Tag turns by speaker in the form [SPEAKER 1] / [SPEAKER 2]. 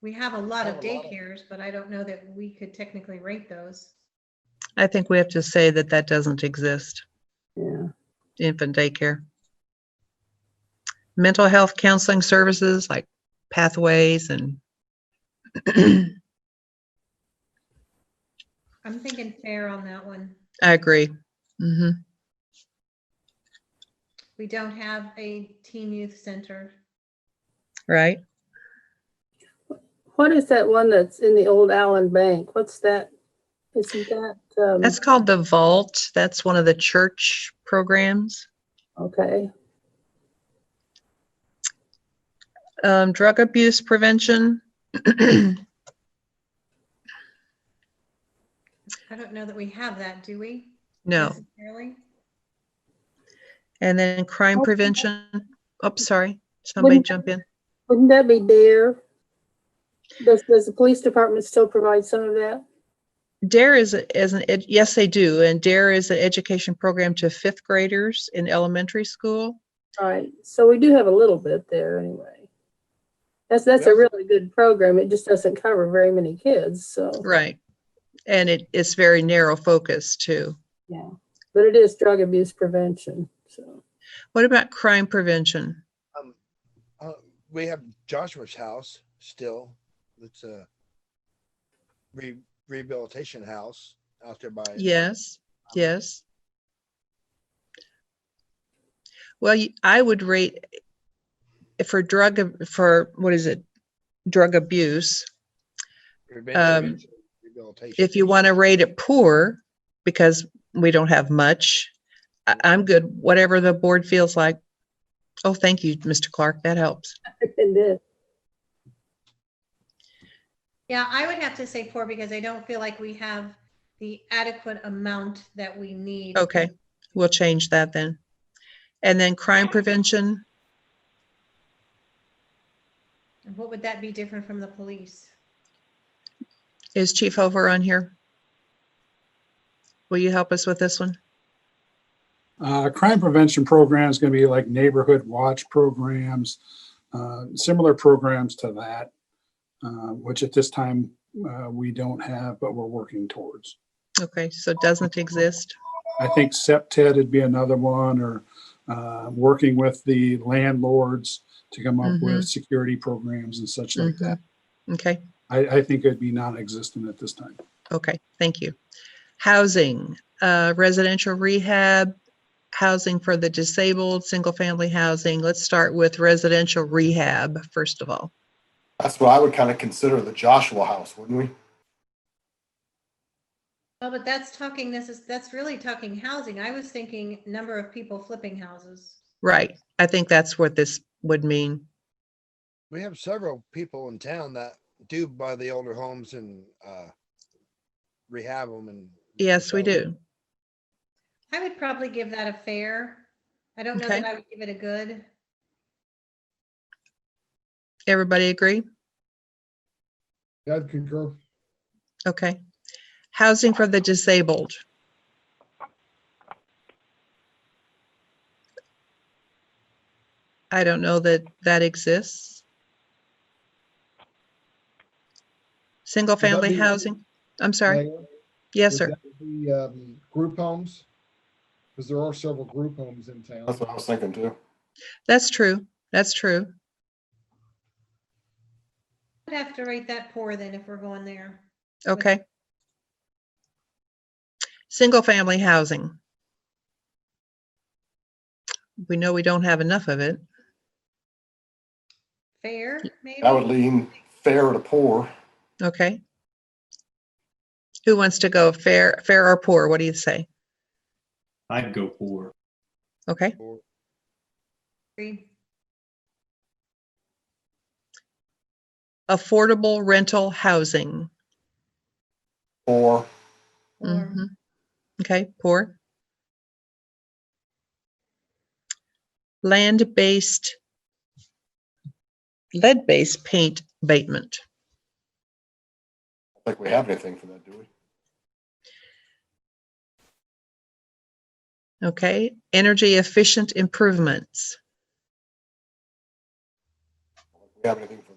[SPEAKER 1] We have a lot of
[SPEAKER 2] Have a lot of-
[SPEAKER 1] daycares, but I don't know that we could technically rate those.
[SPEAKER 3] I think we have to say that that doesn't exist,
[SPEAKER 4] Yeah.
[SPEAKER 3] infant daycare. Mental health counseling services like pathways and
[SPEAKER 1] I'm thinking fair on that one.
[SPEAKER 3] I agree. hmm
[SPEAKER 1] We don't have a teen youth center.
[SPEAKER 3] right?
[SPEAKER 4] What is that one that's in the old Allen Bank? What's that? Isn't that, um,
[SPEAKER 3] That's called the vault. That's one of the church programs.
[SPEAKER 4] okay,
[SPEAKER 3] Um, drug abuse prevention.
[SPEAKER 1] I don't know that we have that, do we?
[SPEAKER 3] No.
[SPEAKER 1] Necessarily?
[SPEAKER 3] And then crime
[SPEAKER 4] Okay.
[SPEAKER 3] prevention. Oh, sorry. Somebody
[SPEAKER 4] Wouldn't-
[SPEAKER 3] jump in.
[SPEAKER 4] wouldn't that be DARE? Does, does the police department still provide some of that?
[SPEAKER 3] DARE is, a- is an, ed- yes, they do. And DARE is an education program to fifth graders in elementary school.
[SPEAKER 4] All right, so we do have a little bit there anyway. That's, that's a
[SPEAKER 2] Yes.
[SPEAKER 4] really good program. It just doesn't cover very many kids, so,
[SPEAKER 3] Right. And it, it's very narrow focus too.
[SPEAKER 4] yeah. But it is drug abuse prevention, so.
[SPEAKER 3] What about crime prevention?
[SPEAKER 2] Um, uh, we have Joshua's house still. It's a re- rehabilitation house out there by.
[SPEAKER 3] Yes, yes. Well, you- I would rate eh, for drug, ab- for, what is it? Drug abuse.
[SPEAKER 2] Rehabilitation- rehabilitation.
[SPEAKER 3] um, if you want to rate it poor, because we don't have much, I, I'm good, whatever the board feels like. Oh, thank you, Mr. Clark, that helps.
[SPEAKER 4] And then,
[SPEAKER 1] Yeah, I would have to say four because I don't feel like we have the adequate amount that we need.
[SPEAKER 3] Okay, we'll change that then. And then crime prevention,
[SPEAKER 1] And What would that be different from the police?
[SPEAKER 3] is Chief Hover on here? Will you help us with this one?
[SPEAKER 5] Uh, crime prevention programs going to be like neighborhood watch programs, uh, similar programs to that, uh, which at this time uh, we don't have, but we're working towards.
[SPEAKER 3] Okay, so it doesn't exist.
[SPEAKER 5] I think SEPTED would be another one, or uh, working with the landlords to come up with security programs and such like that.
[SPEAKER 3] Okay,
[SPEAKER 5] I, I think it'd be non-existent at this time.
[SPEAKER 3] okay, thank you. Housing, uh, residential rehab, housing for the disabled, single-family housing. Let's start with residential rehab, first of all.
[SPEAKER 6] That's what I would kind of consider the Joshua house, wouldn't we?
[SPEAKER 1] Well, but that's talking, this is, that's really talking housing. I was thinking number of people flipping houses.
[SPEAKER 3] Right. I think that's what this would mean.
[SPEAKER 2] We have several people in town that do buy the older homes and, uh, rehab them and.
[SPEAKER 3] Yes, we
[SPEAKER 2] rebuild
[SPEAKER 3] do.
[SPEAKER 1] I would probably give that a fair. I don't know
[SPEAKER 3] Okay.
[SPEAKER 1] that I would give it a good.
[SPEAKER 3] Everybody agree?
[SPEAKER 7] I'd concur.
[SPEAKER 3] Okay. Housing for the disabled. I don't know that that exists. Single
[SPEAKER 7] that
[SPEAKER 3] family
[SPEAKER 7] be-
[SPEAKER 3] housing. I'm sorry.
[SPEAKER 7] Mayor,
[SPEAKER 3] Yes,
[SPEAKER 7] would
[SPEAKER 3] sir.
[SPEAKER 7] that be, um, Group homes, because there are several group homes in town.
[SPEAKER 6] That's what I was thinking too.
[SPEAKER 3] That's true. That's true.
[SPEAKER 1] I'd have to rate that poor then if we're going there.
[SPEAKER 3] Okay. Single family housing. We know we don't have enough of it.
[SPEAKER 1] Fair, maybe?
[SPEAKER 6] I would lean fair to poor.
[SPEAKER 3] Okay. Who wants to go fair, fair or poor? What do you say?
[SPEAKER 8] I'd go poor.
[SPEAKER 3] Okay.
[SPEAKER 2] or-
[SPEAKER 1] Agree.
[SPEAKER 3] Affordable rental housing.
[SPEAKER 6] Or
[SPEAKER 1] Or-
[SPEAKER 3] Mhm. Okay, poor. Land-based, lead-based paint abatement.
[SPEAKER 6] I don't think we have anything for that, do we?
[SPEAKER 3] Okay, energy efficient improvements.
[SPEAKER 6] We have anything